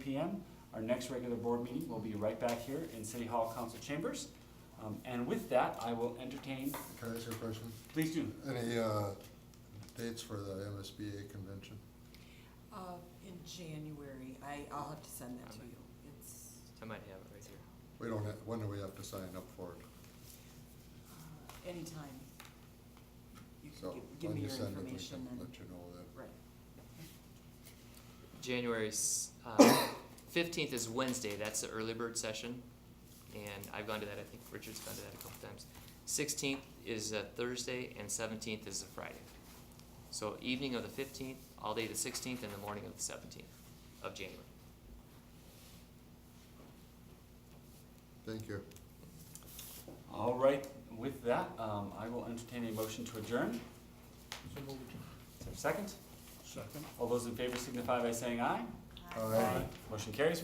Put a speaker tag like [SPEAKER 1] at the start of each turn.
[SPEAKER 1] P M. Our next regular board meeting will be right back here in City Hall Council Chambers. Um, and with that, I will entertain,
[SPEAKER 2] Can I ask you a question?
[SPEAKER 1] please do.
[SPEAKER 2] Any uh, dates for the MSBA convention?
[SPEAKER 3] Uh, in January, I, I'll have to send that to you. It's,
[SPEAKER 4] I might have it right here.
[SPEAKER 2] We don't, ha- when do we have to sign up for it?
[SPEAKER 3] uh, anytime. You
[SPEAKER 2] So
[SPEAKER 3] can give, give
[SPEAKER 2] when
[SPEAKER 3] me
[SPEAKER 2] you
[SPEAKER 3] your
[SPEAKER 2] send it, we can
[SPEAKER 3] information and,
[SPEAKER 2] let you know then.
[SPEAKER 3] right.
[SPEAKER 4] January s- uh, 15th is Wednesday. That's the early bird session. And I've gone to that. I think Richard's gone to that a couple times. 16th is a Thursday, and 17th is a Friday. So evening of the 15th, all day the 16th, and the morning of the 17th of January.
[SPEAKER 2] Thank you.
[SPEAKER 1] All right, with that, um, I will entertain a motion to adjourn. Is there a second? Second. All those in favor signify by saying aye.
[SPEAKER 2] All right.
[SPEAKER 1] Motion carries.